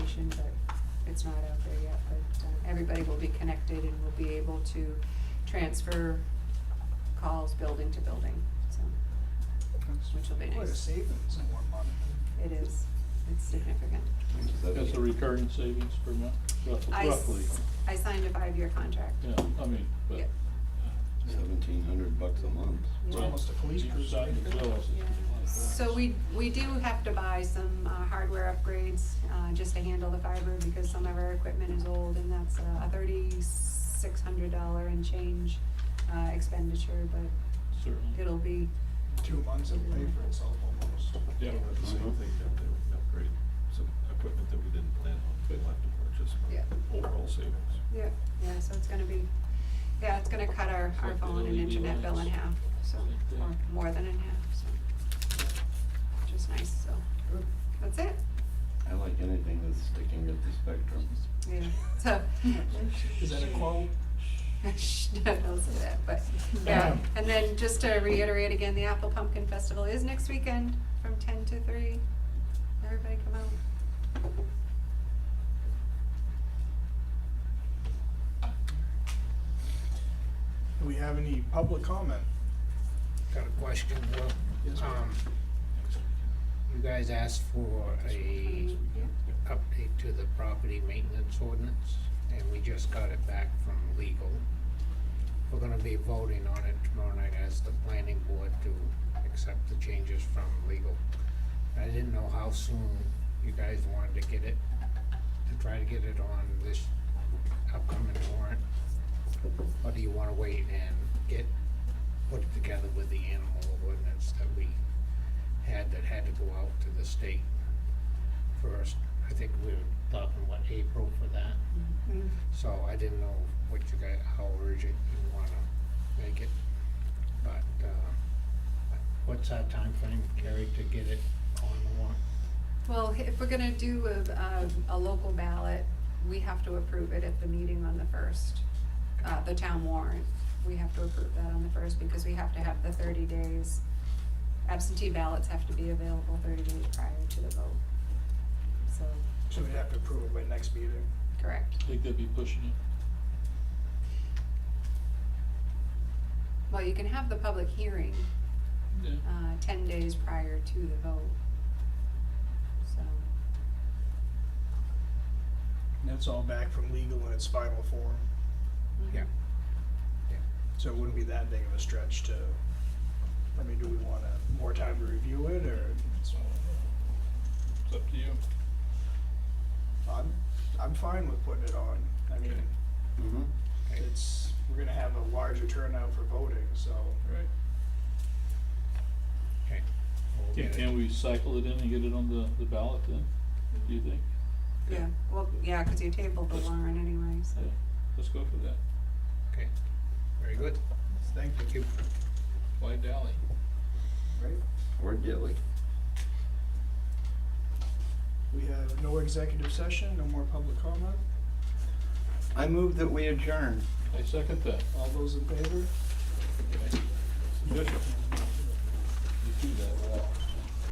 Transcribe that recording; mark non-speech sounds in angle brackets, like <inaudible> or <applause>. it's not out there yet, but uh, everybody will be connected and will be able to transfer calls building to building, so Which will be Quite a nice. savings in one month. it is, it's significant. That's a recurring savings per month, rough- I s- roughly. I signed a five-year contract. Yeah, I mean, but. uh, Yeah. Seventeen hundred bucks a month. It's almost a police Deep cruiser. side of the jaws, it's Yeah. like that. So we, we do have to buy some uh, hardware upgrades, uh, just to handle the fiber because some of our equipment is old and that's uh, a thirty-six hundred dollar and change, uh, expenditure, but Certainly. it'll be, Two months it'll pay for itself almost. Yeah. The same thing that they would upgrade some equipment that we didn't plan on, we'll have to purchase, Yeah. but overall savings. yeah, yeah, so it's gonna be, yeah, it's gonna cut our, our Like the phone and LED internet bill in lights. half, so, Like or that. more than in half, so. Which is nice, so, Good. that's it, I like anything that's sticking at the spectrum. yeah, so. <laughs> Is that a quote? No, don't say that, but, yeah, and then just to reiterate again, the Apple Pumpkin Festival is next weekend from ten to three. Everybody come out. Do we have any public comment? Got a question, Will. Yes, ma'am. Um, you guys asked for a update to the property maintenance ordinance, and we just got it back from legal. We're gonna be voting on it tomorrow night as the planning board to accept the changes from legal. I didn't know how soon you guys wanted to get it, to try to get it on this upcoming warrant. Or do you wanna wait and get, put it together with the animal ordinance that we had that had to go out to the state first? I think we were talking, what, April for that? So I didn't know what you guys, how urgent you wanna make it, but, uh, what's our timeframe, Carrie, to get it on the warrant? Well, if we're gonna do a, a, a local ballot, we have to approve it at the meeting on the first, uh, the town warrant. We have to approve that on the first because we have to have the thirty days. Absentee ballots have to be available thirty days prior to the vote. So, So we'd have to approve it by next meeting. correct. I think they'd be pushing it. Well, you can have the public hearing Yeah. uh, ten days prior to the vote. So, And that's all back from legal in its final form. mhm. Yeah. So it wouldn't be that big of a stretch to, I mean, do we want a, more time to review it or? So, It's up to you. I'm, I'm fine with putting it on. I mean, Okay. Mm-hmm. it's, we're gonna have a larger turnout for voting, so. Right. Okay. we'll Can, get it. can we cycle it in and get it on the, the ballot then, do you think? Yeah, well, yeah, because you tabled the warrant anyway, so. Yeah, let's go for that. Okay, very good, Thank thank you. Why dally? Right? Or Gilly. We have no executive session, no more public comment. I move that we adjourn. I second that. All those in favor? You do that well.